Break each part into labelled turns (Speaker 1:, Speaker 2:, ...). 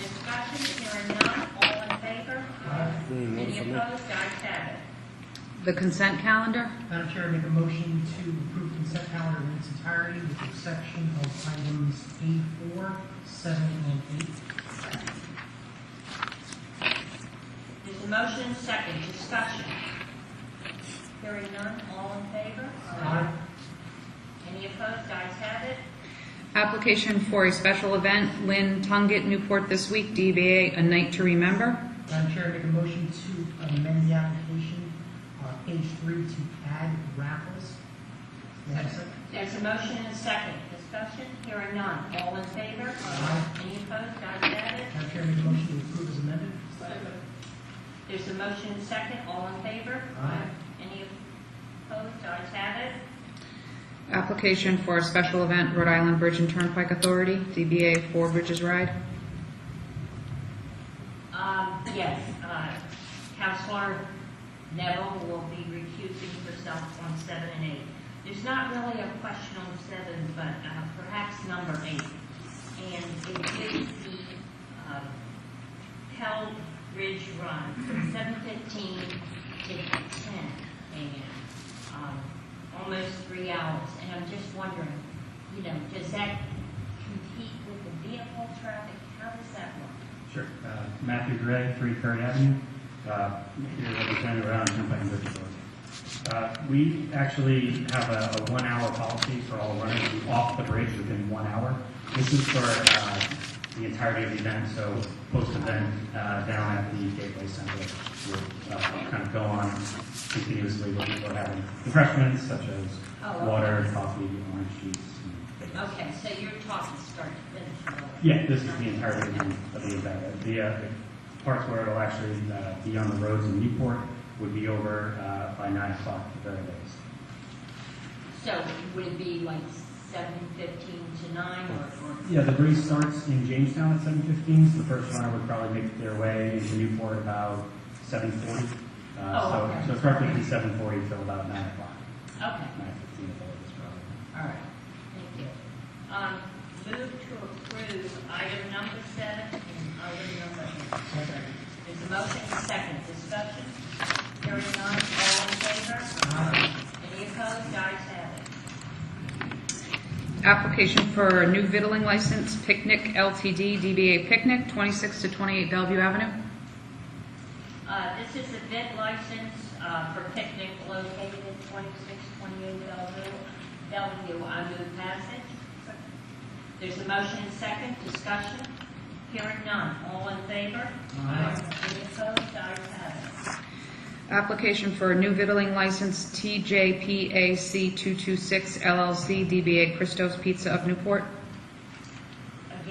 Speaker 1: discussion? Hearing none, all in favor? Any opposed? Ayes have it.
Speaker 2: The consent calendar?
Speaker 3: Madam Chair, I make a motion to approve consent calendar in its entirety with the exception of items A4, 7, and 8.
Speaker 1: There's a motion and second, discussion. Hearing none, all in favor?
Speaker 3: Aye.
Speaker 1: Any opposed? Ayes have it.
Speaker 2: Application for a special event, Lynn Tungate, Newport this week, DBA A Night to Remember.
Speaker 3: Madam Chair, I make a motion to amend the application, uh, page 3, to add raffles. May I have a second?
Speaker 1: There's a motion and second, discussion. Hearing none, all in favor?
Speaker 3: Aye.
Speaker 1: Any opposed? Ayes have it.
Speaker 3: Madam Chair, I make a motion to approve as amended.
Speaker 1: There's a motion and second, all in favor?
Speaker 3: Aye.
Speaker 1: Any opposed? Ayes have it.
Speaker 2: Application for a special event, Rhode Island Bridge and Turnpike Authority, DBA Four Bridges Ride.
Speaker 1: Um, yes, uh, Counselor Neville will be recusing herself on seven and eight. There's not really a question on seven, but uh, perhaps number eight. And it is the, uh, Pell Ridge Run from seven fifteen to ten AM. Um, Almost three hours, and I'm just wondering, you know, does that compete with the vehicle traffic? How does that work?
Speaker 4: Sure. Uh, Matthew Gray, 3 Ferry Avenue, uh, here representing Rhode Island Turnpike Bridge Authority. Uh, We actually have a a one-hour policy for all runners who off the bridge within one hour. This is for uh, the entirety of the event, so post-event uh, down at the Gateway Center. We'll uh, kind of go on continuously, what people are having refreshments such
Speaker 1: Oh, okay.
Speaker 4: as water, coffee, orange juice. and bagels.
Speaker 1: Okay, so you're talking start to finish. really.
Speaker 4: Yeah, this is the entirety of the of the event. The uh, the parts where it'll actually uh, be on the roads in Newport would be over uh, by nine o'clock at the very latest.
Speaker 1: So would it be like seven fifteen to nine or? or-
Speaker 4: Yeah, the race starts in Jamestown at seven fifteen, so the first runner would probably make their way into Newport about seven forty. Uh,
Speaker 1: Oh,
Speaker 4: So
Speaker 1: okay.
Speaker 4: so it's roughly seven forty till about nine o'clock,
Speaker 1: Okay,
Speaker 4: nine fifteen at the latest probably.
Speaker 1: all right, thank you. Um, move to approve item number seven and item number eight. There's a motion and a second discussion. Hearing none, all in favor? Any opposed? Ayes have it.
Speaker 2: Application for a new Vittling license, Picnic LTD, DBA Picnic, 26 to 28 Bellevue Avenue.
Speaker 1: Uh, This is a vet license uh, for picnic located at 2628 Bellevue. Bellevue, I move passage. There's a motion and second, discussion. Hearing none, all in favor? Aye. Any opposed? Ayes have it.
Speaker 2: Application for a new Vittling license, TJPAC 226 LLC, DBA Christos Pizza of Newport.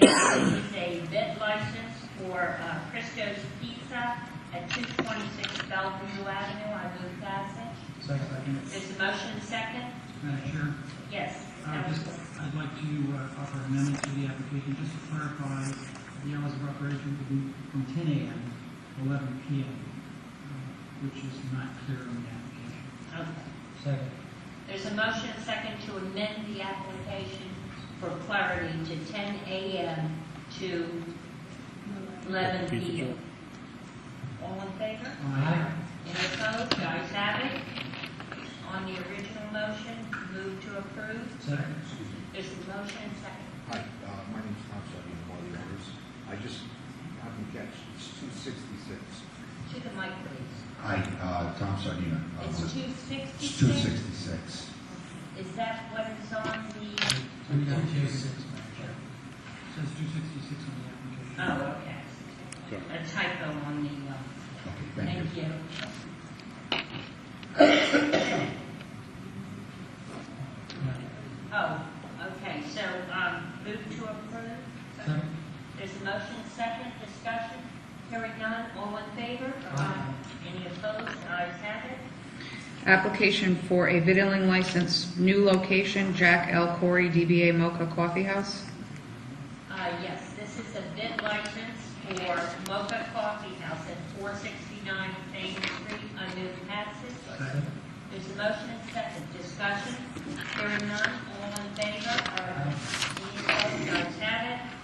Speaker 1: Again, this is a vet license for uh, Christo's Pizza at 226 Bellevue Avenue. I move passage.
Speaker 5: Second.
Speaker 1: There's a motion and second?
Speaker 5: Madam Chair,
Speaker 1: Yes.
Speaker 5: I would Uh, just, I'd like to uh, offer an amendment to the application, just to clarify, the hours of operation would be from 10 a.m. to 11 p.m., uh, which is not clear in the application.
Speaker 1: Okay.
Speaker 3: Second.
Speaker 1: There's a motion and second to amend the application for clarity to 10 a.m. to 11 p.m. All in favor?
Speaker 5: Aye.
Speaker 1: Any opposed? The ayes have it. On the original motion, move to approve.
Speaker 5: Second.
Speaker 6: Excuse me.
Speaker 1: There's a motion and second.
Speaker 6: Hi, uh, my name's Tom Sutton, I'm one of the owners. I just happened to catch, it's 266.
Speaker 1: To the mic, please.
Speaker 6: Hi, uh, Tom Sutton.
Speaker 1: Uh-huh. It's
Speaker 6: It's
Speaker 1: 266.
Speaker 6: 266.
Speaker 1: Is that what is on the,
Speaker 5: Two sixty-six, Madam Chair. Says 266 on the application.
Speaker 1: oh, okay. A typo on the, uh,
Speaker 6: Okay, thank
Speaker 1: Thank
Speaker 6: you.
Speaker 1: you. Oh, okay, so, um, move to approve?
Speaker 5: Second.
Speaker 1: There's a motion, second, discussion, hearing none, all in favor?
Speaker 5: Aye.
Speaker 1: Any opposed, ayes have it.
Speaker 2: Application for a Vittling license, new location, Jack L. Corey, DBA Mocha Coffee House.
Speaker 1: Uh, yes, this is a bid license for Mocha Coffee House at four sixty-nine Main Street, I move passage. There's a motion and second, discussion, hearing none, all in favor? Any opposed, ayes have it.